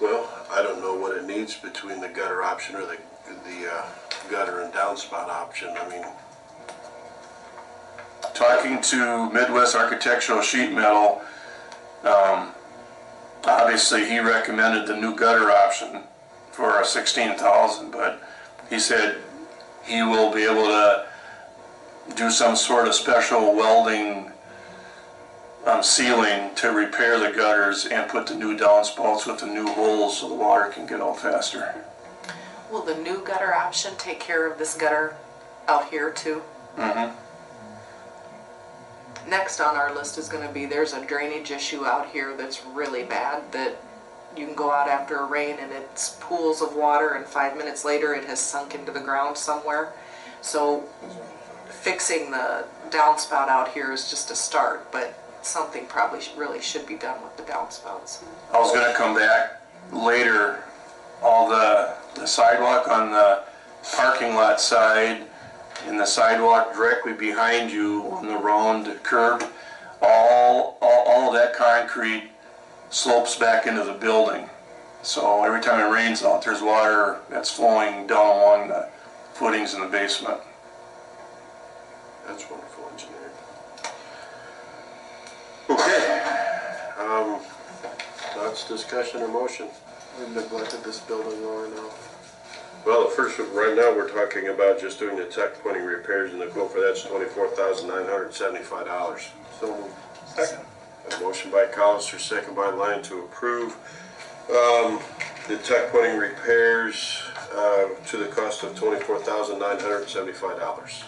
Well, I don't know what it needs between the gutter option or the, the uh, gutter and downspout option, I mean, talking to Midwest Architectural Sheet Metal, um, obviously he recommended the new gutter option for a sixteen thousand, but he said he will be able to do some sort of special welding um, sealing to repair the gutters and put the new downspouts with the new holes so the water can get out faster. Will the new gutter option take care of this gutter out here too? Next on our list is gonna be, there's a drainage issue out here that's really bad, that you can go out after a rain and it's pools of water and five minutes later it has sunk into the ground somewhere. So fixing the downspout out here is just a start, but something probably sh- really should be done with the downspouts. I was gonna come back later, all the, the sidewalk on the parking lot side and the sidewalk directly behind you on the round curb, all, all, all of that concrete slopes back into the building. So every time it rains out, there's water that's flowing down along the footings in the basement. that's wonderful engineering. Okay, um, thoughts, discussion, or motion? We've neglected this building long enough. Well, the first, right now, we're talking about just doing the tech pointing repairs, and the quote for that's twenty-four thousand nine hundred and seventy-five dollars. So moved. A motion by Colister, second by Lyon to approve. um, The tech pointing repairs uh, to the cost of $24,975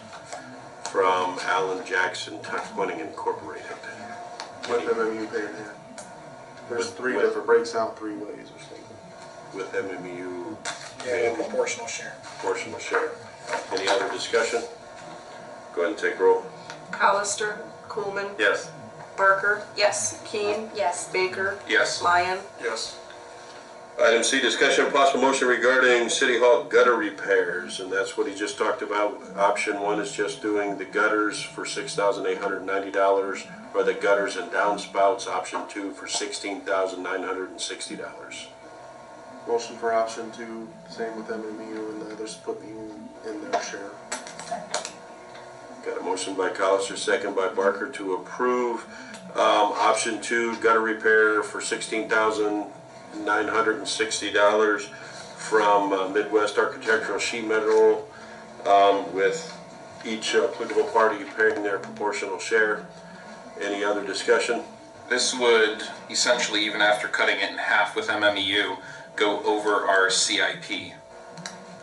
from Allen Jackson Tech Pointing Incorporated. What MMU paid that? There's With- three, with- if it breaks out three ways or something. With MMU Yeah, proportional share. portion of share. Any other discussion? Go ahead and take roll. Colister, Coolman, Yes. Barker? Yes. Keane? Yes. Baker? Yes. Lyon? Yes. Item C, discussion of possible motion regarding City Hall gutter repairs, and that's what he just talked about. Option one is just doing the gutters for six thousand eight hundred ninety dollars, or the gutters and downspouts, option two for sixteen thousand nine hundred and sixty dollars. Motion for option two, same with MMU and the others put you in their share. Got a motion by Colister, second by Barker to approve, um, option two, gutter repair for sixteen thousand nine hundred and sixty dollars from uh, Midwest Architectural Sheet Metal, um, with each uh, applicable party paying their proportional share. Any other discussion? This would essentially, even after cutting it in half with MMEU, go over our CIP.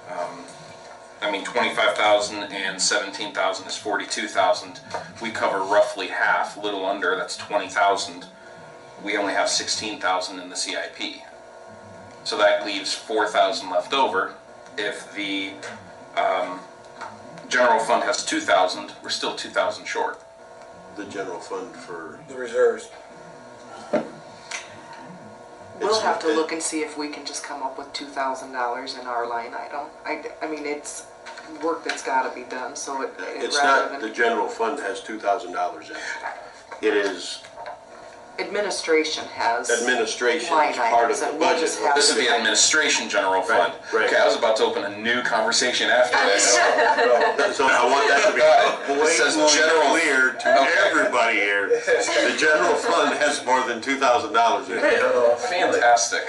Um, I mean, 25,000 and 17,000 is 42,000. We cover roughly half, a little under, that's 20,000. We only have 16,000 in the CIP. So that leaves 4,000 left over. If the um, general fund has 2,000, we're still 2,000 short. The general fund for, The reserves. We'll It's- have to it- look and see if we can just come up with two thousand dollars in our line item. I, I mean, it's work that's gotta be done, so it, it it's rather not, the than general fund has two thousand dollars in it. It is administration has. administration, Line it's part of items, the and we'll budget. just have This would be administration general fund. right. Okay, I was about to open a new conversation after that. So I want that to be This says blatantly general- clear to Okay. everybody here. The general fund has more than two thousand dollars in it. Fantastic.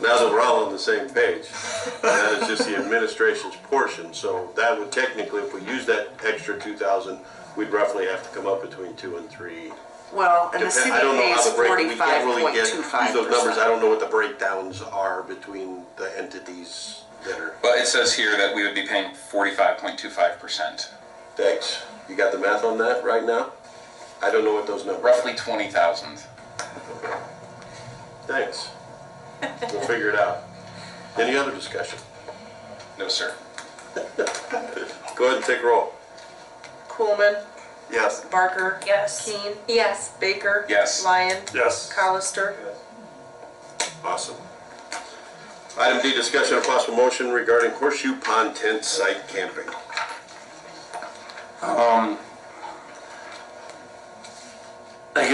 Now that we're all on the same page, that is just the administration's portion. So that would technically, if we use that extra two thousand, we'd roughly have to come up between two and three. Well, and the Depend- city I don't know how pays the break, we forty-five can't really point get, two use five those numbers. I percent. don't know what the breakdowns are between the entities that are. But it says here that we would be paying forty-five point two five percent, Thanks. You got the math on that right now? I don't know what those numbers. are. roughly twenty thousand. Thanks. We'll figure it out. Any other discussion? No, sir. Go ahead and take roll. Coolman, Yes. Barker, Yes. Keane, Yes. Baker. Yes. Lyon, Yes. Colister. Awesome. Item D, discussion of possible motion regarding horseshoe pond tent site camping.